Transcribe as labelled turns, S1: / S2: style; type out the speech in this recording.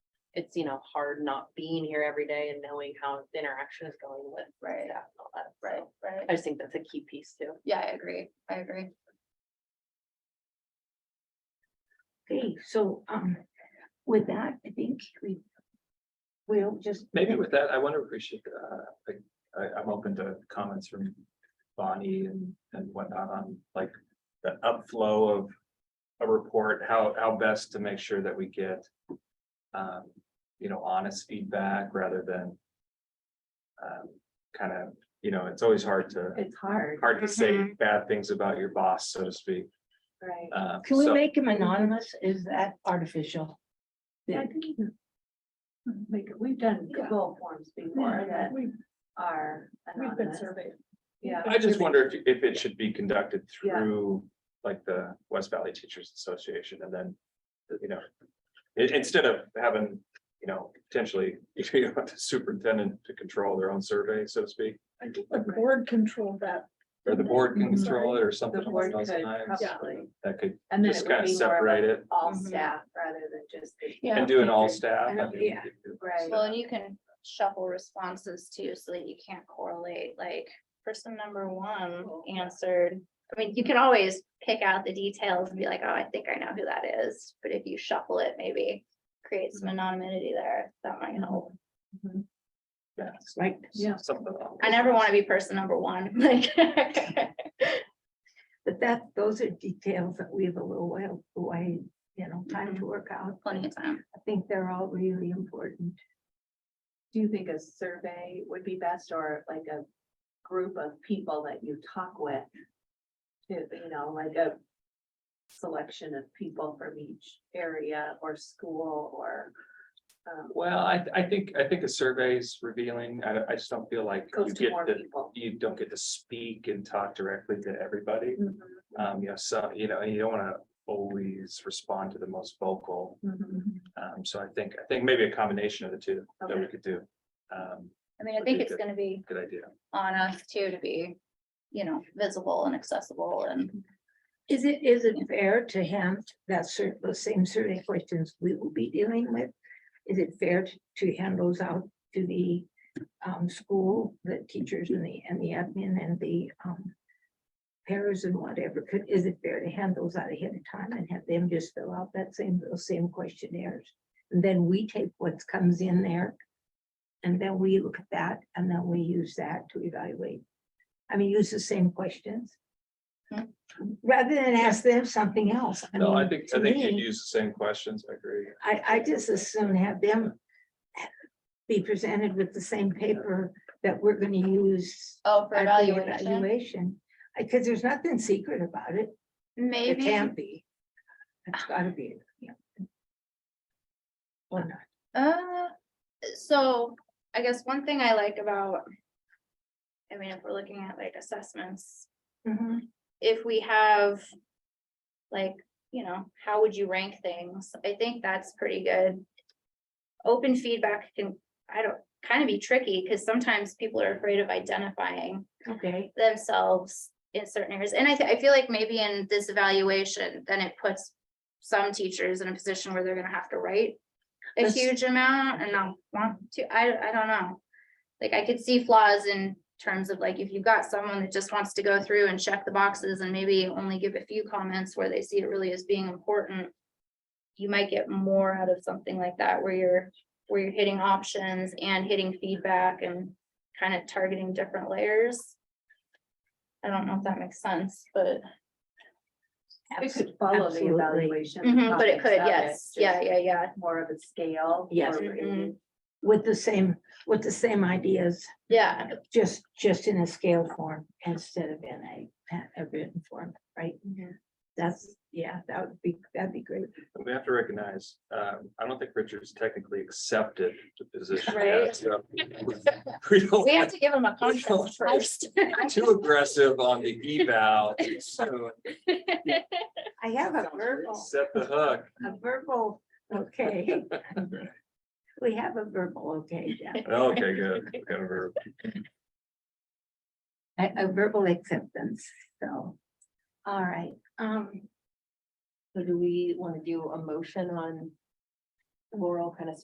S1: it's, you know, hard not being here every day and knowing how the interaction is going with
S2: Right,
S1: staff and all that. So
S2: right, right.
S1: I just think that's a key piece too.
S2: Yeah, I agree. I agree.
S3: Okay, so, um, with that, I think we will just.
S4: Maybe with that, I wonder if we should, uh, like, I, I'm open to comments from Bonnie and, and whatnot on like the upflow of a report, how, how best to make sure that we get, um, you know, honest feedback rather than um, kind of, you know, it's always hard to,
S1: It's hard.
S4: hard to say bad things about your boss, so to speak.
S1: Right.
S4: Uh,
S3: Can we
S4: so-
S3: make him anonymous? Is that artificial?
S5: Yeah, I think you can Make it, we've done
S2: Yeah.
S5: Google forms before that are
S2: We've
S5: anonymous. Yeah.
S4: I just wonder if, if it should be conducted
S5: Yeah.
S4: through, like, the West Valley Teachers Association, and then, you know. i- instead of having, you know, potentially, if you want the superintendent to control their own survey, so to speak,
S6: I think the board controlled that.
S4: or the board can control it or something.
S5: The board
S4: along those
S5: could
S4: lines,
S5: probably.
S4: That could
S5: And then
S4: Just
S5: it would
S4: kinda
S5: be more of
S4: separate
S5: a
S4: it.
S5: all
S3: Mhm.
S5: staff rather than just. the-
S4: And do an all staff.
S5: I don't-
S4: I mean,
S5: yeah,
S4: it- it-
S5: right.
S2: Well, and you can shuffle responses too, so that you can't correlate, like, person number one answered. I mean, you can always pick out the details and be like, oh, I think I know who that is, but if you shuffle it, maybe create some anonymity there, that might help.
S4: yeah,
S3: Right.
S5: Yeah.
S4: something along
S2: I
S4: those
S2: never want
S4: lines.
S2: to be person number one, like.
S3: But that, those are details that we have a little while, away, you know, time to work out.
S2: Plenty of time.
S3: I think they're all really important.
S5: Do you think a survey would be best or like a group of people that you talk with? To, you know, like a selection of people from each area or school or. um,
S4: Well, I, I think, I think a survey's revealing, I, don't- I just don't feel like you
S5: Goes to
S4: get
S5: more
S4: the,
S5: people.
S4: you don't get to speak and talk directly to everybody.
S5: Mhm,
S4: Um, you know, so, you know, and you don't wanna always respond to the most vocal.
S5: mhm.
S4: Um, so I think, I think maybe a combination of the two that we
S5: Okay.
S4: could do. Um,
S2: I mean, I
S4: Would
S2: think
S4: be
S2: it's
S4: good.
S2: gonna be
S4: good idea.
S2: on us too to be, you know, visible and accessible and.
S3: Is it, is it fair to him that cer- those same survey questions we will be dealing with? Is it fair to- to hand those out to the um school, the teachers and the and the admin and the um. Pairs and whatever, could, is it fair to hand those out ahead of time and have them just fill out that same, those same questionnaires? And then we take what comes in there. And then we look at that and then we use that to evaluate. I mean, use the same questions.
S2: Hmm.
S3: Rather than ask them something else.
S4: No, I
S3: mean,
S4: think,
S3: to
S4: I think
S3: me-
S4: you'd use the same questions, I agree.
S3: I, I just assume have them be presented with the same paper that we're gonna use.
S2: Oh, for
S3: at the
S2: evaluation,
S3: Evaluation, because there's nothing secret about it, it
S2: maybe,
S3: can't be. It's gotta be, yeah. Or not,
S2: uh, so I guess one thing I like about. I mean, if we're looking at like assessments,
S5: Mm-hmm.
S3: Mhm.
S2: if we have. Like, you know, how would you rank things? I think that's pretty good. Open feedback can, I don't, kind of be tricky, because sometimes people are afraid of identifying.
S3: okay,
S2: themselves in certain areas. And I, thi- I feel like maybe in this evaluation, then it puts some teachers in a position where they're gonna have to write a
S3: This-
S2: huge amount and not want to, I, I don't know. Like I could see flaws in terms of like, if you've got someone that just wants to go through and check the boxes and maybe only give a few comments where they see it really as being important, you might get more out of something like that where you're, where you're hitting options and hitting feedback and kind of targeting different layers. I don't know if that makes sense, but,
S5: It could follow the
S3: absolutely.
S5: evaluation.
S2: Mhm, but it
S5: topics
S2: Mm-hmm, could,
S5: of
S2: yes,
S5: just
S2: yeah, Mm-hmm. yeah, yeah,
S5: More of a scale.
S3: Yes.
S5: or maybe-
S3: with the same, with the same ideas,
S2: yeah,
S3: just, just in a scale form instead of in a, pa- a written form, right?
S2: Mhm.
S3: That's, yeah, that would be, that'd be great.
S4: But We have to recognize, um, I don't think Richard's technically accepted the position. yet,
S2: Right.
S4: so We don't
S2: we
S4: want
S2: have to give them a
S4: don't
S2: contest
S4: like-
S2: first.
S4: to be too aggressive on the eval. so
S3: I have a verbal.
S4: Set the hook.
S3: A verbal, okay. We have a verbal, okay, yeah,
S4: Okay, good. We got a verb.
S3: a, a verbal acceptance, so. All right, um,
S1: So do we want to do a motion on Laurel kind of